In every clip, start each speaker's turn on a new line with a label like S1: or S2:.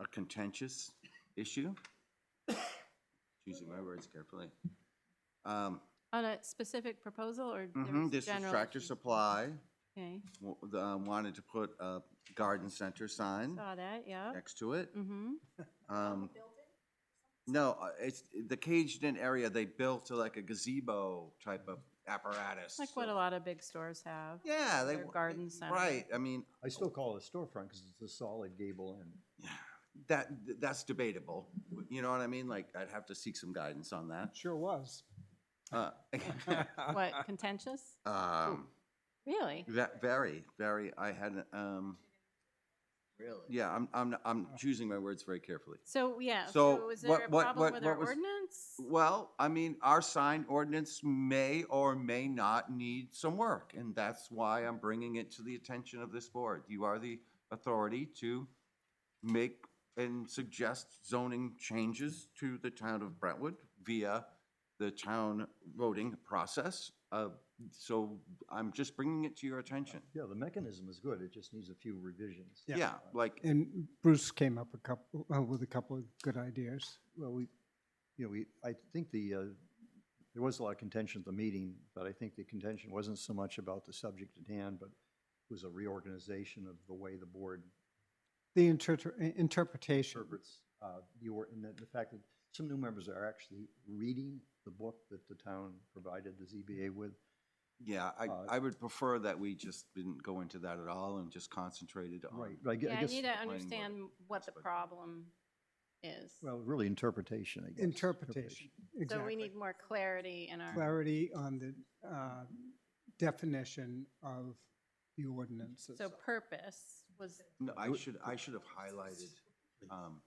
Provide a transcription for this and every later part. S1: a contentious issue. Choosing my words carefully. Um,
S2: On a specific proposal or? there
S1: mhm,
S2: was
S1: This was
S2: general
S1: Tractor
S2: issues?
S1: Supply
S2: Okay,
S1: wa- the, um, wanted to put a garden center sign
S2: saw that, yeah.
S1: next to it.
S2: Mm-hmm,
S1: Um, No, uh, it's, the caged in area, they built a- like a gazebo type of apparatus.
S2: like what a lot of big stores have.
S1: Yeah. they
S2: their
S1: wa-
S2: garden center.
S1: Right, I mean,
S3: I still call it a storefront because it's a solid gable end.
S1: that, that's debatable, you know what I mean? Like, I'd have to seek some guidance on that.
S4: Sure was.
S1: Uh,
S2: What, contentious?
S1: um,
S2: Really?
S1: Ve- Very, very, I had, um,
S5: Really?
S1: yeah, I'm, I'm, I'm choosing my words very carefully.
S2: So, yeah,
S1: So
S2: so is
S1: what-
S2: there a
S1: what-
S2: problem
S1: what-
S2: with
S1: what
S2: our
S1: was-
S2: ordinance?
S1: Well, I mean, our sign ordinance may or may not need some work, and that's why I'm bringing it to the attention of this board. You are the authority to make and suggest zoning changes to the town of Brentwood via the town voting process. Uh, So I'm just bringing it to your attention.
S3: Yeah, the mechanism is good. It just needs a few revisions.
S4: Yeah.
S1: Yeah, like,
S4: And Bruce came up a couple, uh, with a couple of good ideas.
S3: Well, we, you know, we, I think the, uh, there was a lot of contention at the meeting, but I think the contention wasn't so much about the subject at hand, but it was a reorganization of the way the board
S4: The interpre- i- interpretation,
S3: interprets uh, the or, and that the fact that some new members are actually reading the book that the town provided the ZBA with.
S1: yeah, I,
S3: Uh,
S1: I would prefer that we just didn't go into that at all and just concentrated on.
S3: Right, but I gue-
S2: Yeah,
S3: I
S2: I
S3: guess,
S2: need to
S1: board.
S2: understand what the problem is.
S3: well, really interpretation, I guess.
S4: interpretation,
S2: So we
S4: exactly.
S2: need more clarity in our,
S4: Clarity on the uh, definition of the ordinances.
S2: so purpose was
S1: No, I should, I should have highlighted, um,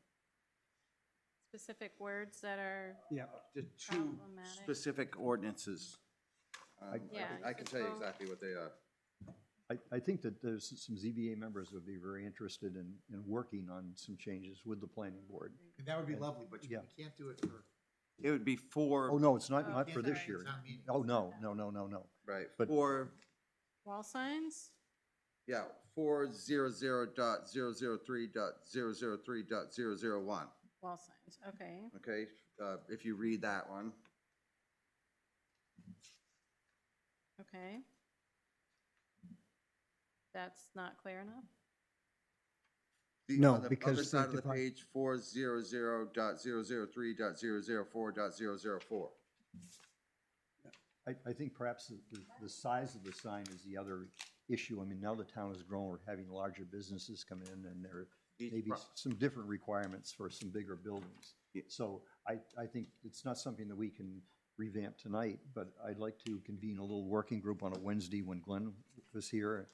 S2: specific words that are,
S4: Yeah,
S1: the two
S2: Problematic.
S1: specific ordinances. Um, I can-
S2: Yeah,
S1: I can tell you
S2: so-
S1: exactly what they are.
S3: I, I think that there's some ZBA members would be very interested in, in working on some changes with the planning board.
S6: That would be lovely, but you
S3: Yeah.
S6: we can't do it for.
S1: It would be four,
S3: Oh, no, it's not,
S2: Oh,
S3: not for this
S2: sorry.
S3: year.
S6: Town meeting.
S3: Oh, no, no, no, no, no.
S1: right,
S3: but-
S1: four,
S2: wall signs?
S1: yeah, four zero zero dot zero zero three dot zero zero three dot zero zero one,
S2: Wall signs, okay.
S1: okay? Uh, if you read that one,
S2: Okay. That's not clear enough?
S1: The-
S4: No,
S1: on the
S4: because
S1: Other
S4: they
S1: side of the
S4: divide-
S1: page, four zero zero dot zero zero three dot zero zero four dot zero zero four.
S3: I, I think perhaps the- the, the size of the sign is the other issue. I mean, now the town has grown, we're having larger businesses come in and there are
S1: Each
S3: maybe
S1: pro-
S3: s- some different requirements for some bigger buildings.
S1: Yeah.
S3: So I, I think it's not something that we can revamp tonight, but I'd like to convene a little working group on a Wednesday when Glenn was here.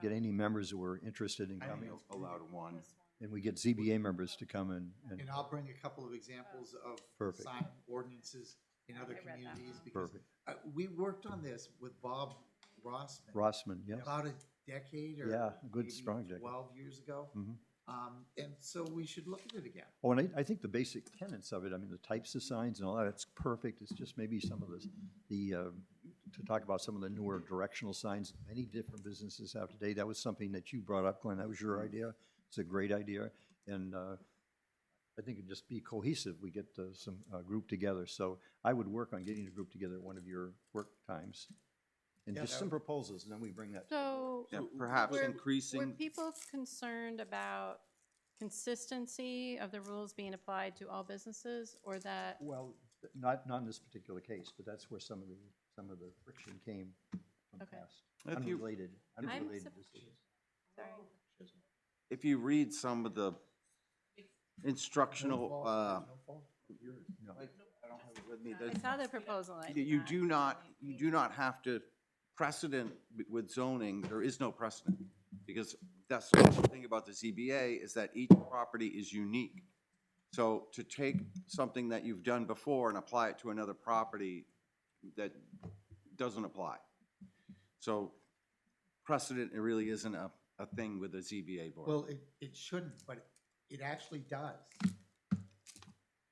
S3: Get any members who are interested in
S6: I don't
S3: coming,
S6: know.
S1: Allowed one.
S3: and we get ZBA members to come and, and,
S6: And I'll bring a couple of examples of
S3: Perfect.
S6: sign ordinances in other
S2: I read that
S6: communities. because
S3: perfect.
S6: uh, We worked on this with Bob Rossman.
S3: Rossman, yes,
S6: About a decade or.
S3: Yeah, a good
S6: maybe
S3: strong decade.
S6: Twelve years ago.
S3: Mhm.
S6: Um, and so we should look at it again.
S3: Oh, and I, I think the basic tenets of it, I mean, the types of signs and all that, it's perfect. It's just maybe some of the, the, uh, to talk about some of the newer directional signs many different businesses have today. That was something that you brought up, Glenn. That was your idea. It's a great idea. And, uh, I think it'd just be cohesive. We get, uh, some, uh, group together. So I would work on getting a group together at one of your work times. And
S6: Yeah,
S3: just
S6: that
S3: some proposals, and then we bring that. to the board.
S2: So
S1: Yeah, perhaps
S2: were- were
S1: increasing,
S2: people concerned about consistency of the rules being applied to all businesses or that,
S3: Well, not, not in this particular case, but that's where some of the, some of the friction came from
S2: Okay.
S3: past.
S1: If you-
S3: Unrelated,
S1: I'm
S3: unrelated
S2: sup-
S3: decisions.
S2: sorry,
S1: if you read some of the instructional, uh,
S3: No.
S1: I don't have it with me.
S2: I
S1: The-
S2: saw the proposal. I
S1: You
S2: did
S1: you do not, you do not have to, precedent with zoning, there is no precedent. Because that's the whole thing about the ZBA, is that each property is unique. So to take something that you've done before and apply it to another property, that doesn't apply. So precedent, it really isn't a, a thing with the ZBA board.
S6: Well, it, it shouldn't, but it actually does.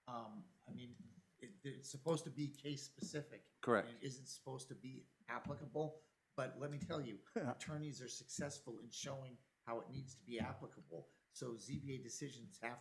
S6: Um, I mean, it, it's supposed to be case-specific.
S1: Correct.
S6: and It isn't supposed to be applicable, but let me tell you, attorneys are successful in showing how it needs to be applicable. So ZBA decisions have